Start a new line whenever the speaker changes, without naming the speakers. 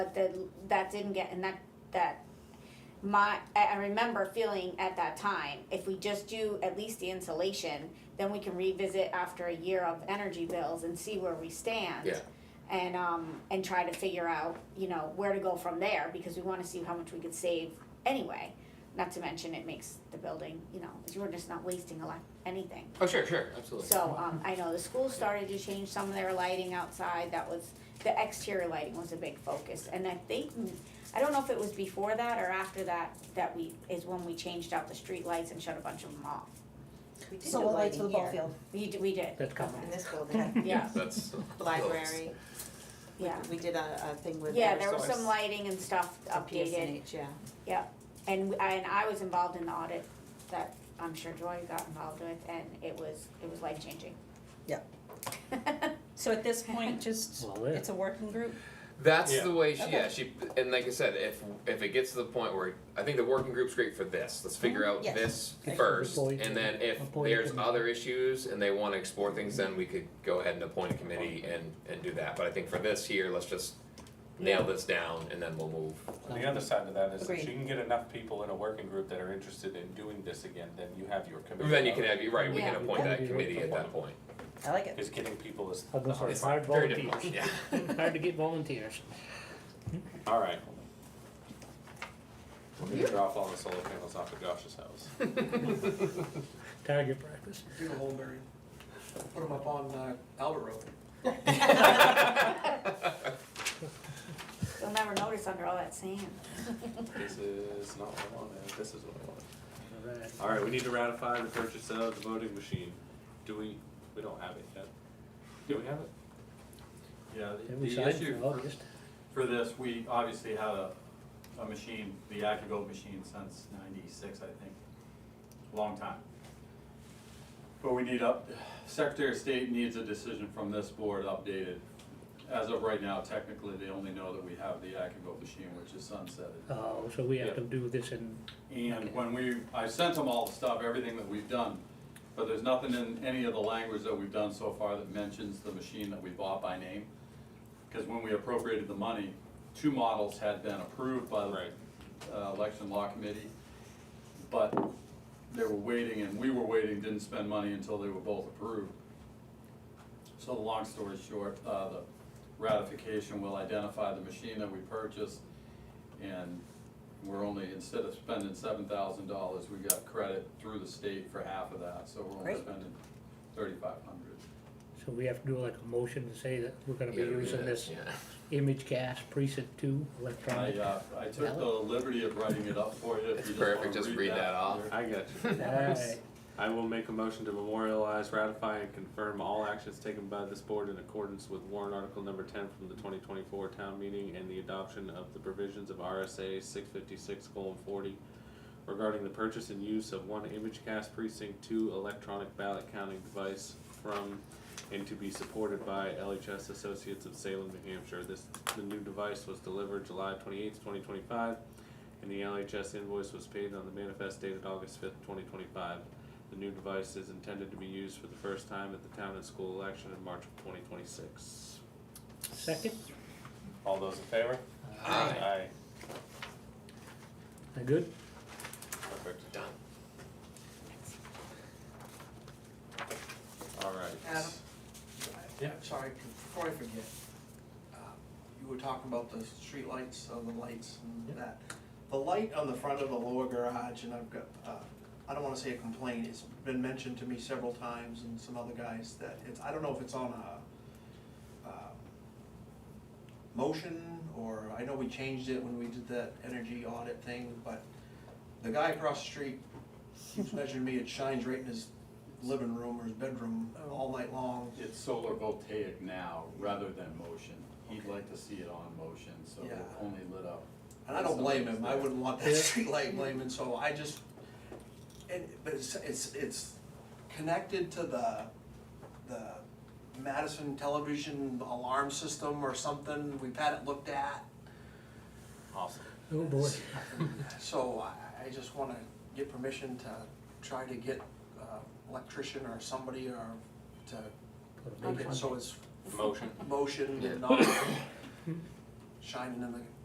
but the, that didn't get, and that, that, my, I, I remember feeling at that time, if we just do at least the insulation, then we can revisit after a year of energy bills and see where we stand.
Yeah.
And, um, and try to figure out, you know, where to go from there, because we wanna see how much we could save anyway. Not to mention it makes the building, you know, you're just not wasting a lot, anything.
Oh, sure, sure, absolutely.
So, um, I know the school started to change some of their lighting outside, that was, the exterior lighting was a big focus, and I think, I don't know if it was before that or after that, that we, is when we changed out the street lights and shut a bunch of them off.
We did
So
the
what lights for the
lighting
ball
here
field?
We did, we did,
That's coming.
in this building,
yeah,
That's.
the library, we,
yeah.
we did a, a thing with
Yeah, there was
Eversource,
some lighting and stuff
some
updated,
PSNH, yeah.
and, I- and I was involved in the audit that I'm sure Joy got involved with, and it was, it was life changing.
Yep.
So at this point, just,
Well, yeah.
it's a working group?
That's
Yeah.
the way she,
Okay.
yeah, she, and like I said, if, if it gets to the point where, I think the working group's great for this, let's figure out
Yes.
this
Yes,
first,
before you
and
can-
then if
before you
there's
can-
other issues and they wanna explore things, then we could go ahead and appoint a committee and, and do that, but I think for this here, let's just nail this down and then we'll move.
The other side of that is if
Agreed.
you can get enough people in a working group that are interested in doing this again, then you have your committee.
Then you can have, you're right, we can
Yeah.
appoint that
Yeah.
committee at that point.
I like it.
Because getting people is
I'm
the hard
sorry,
Oh, It's
part.
hard
very difficult,
volunteers.
yeah.
Hard to get volunteers.
All right. We're gonna drop all the solar panels off at Josh's house.
Target practice.
do the whole Mary. Put them up on uh, Albert Road.
You'll never notice under all that sand.
This is not what I wanted, this is what I wanted.
All right.
All right, we need to ratify the purchase of the voting machine. Do we, we don't have it yet. Do we have it?
Yeah, the-
Yeah, We
the
signed
issue
for August.
for this, we obviously had a, a machine, the AccuGo machine since ninety-six, I think, long time. But we need up, Secretary of State needs a decision from this board updated. As of right now, technically, they only know that we have the AccuGo machine, which is sunsetted.
Oh, so we have
Yeah.
to do this in,
And when we, I sent them all the stuff, everything that we've done, but there's nothing in any of the language that we've done so far that mentions the machine that we bought by name. Because when we appropriated the money, two models had been approved by
Right.
the uh, election law committee. But they were waiting and we were waiting, didn't spend money until they were both approved. So the long story short, uh, the ratification will identify the machine that we purchased and we're only, instead of spending seven thousand dollars, we got credit through the state for half of that, so we're only
Great.
spending thirty-five hundred.
so we have to do like a motion to say that we're gonna be
You gotta read
using
it,
this
yeah.
image gas precinct two
I,
electronic.
uh, I took the liberty of writing it up for you, if you just wanna read that.
Perfect, just read that off.
I got you.
Alright,
I will make a motion to memorialize, ratify, and confirm all actions taken by this board in accordance with warrant article number ten from the twenty twenty-four town meeting and the adoption of the provisions of RSA six fifty-six forty regarding the purchase and use of one ImageCast precinct two electronic ballot counting device from and to be supported by LHS Associates of Salem, New Hampshire. This, the new device was delivered July twenty-eighth, twenty twenty-five, and the LHS invoice was paid on the manifest dated August fifth, twenty twenty-five. The new device is intended to be used for the first time at the town and school election in March of twenty twenty-six.
second,
All those in favor?
Aye.
Uh, good?
Perfect.
Done.
All right.
Adam?
Yeah.
Sorry, before I forget, uh, you were talking about the streetlights, uh, the lights and that. The light on the front of the lower garage, and I've got, uh, I don't wanna say a complaint, it's been mentioned to me several times and some other guys that it's, I don't know if it's on a, um, motion, or I know we changed it when we did that energy audit thing, but the guy across the street keeps mentioning to me it shines right in his living room or his bedroom all night long.
It's solar voltaic now, rather than motion, he'd like to see it on motion, so
Yeah.
it only lit up.
And I don't blame him, I wouldn't want that
Yeah.
streetlight blaming, so I just, and, but it's, it's, it's connected to the, the Madison television alarm system or something, we've had it looked at,
Awesome.
Oh, boy.
so I, I just wanna get permission to try to get, uh, electrician or somebody or to,
Put a
make
big
it so it's
Motion.
motion and not shining in the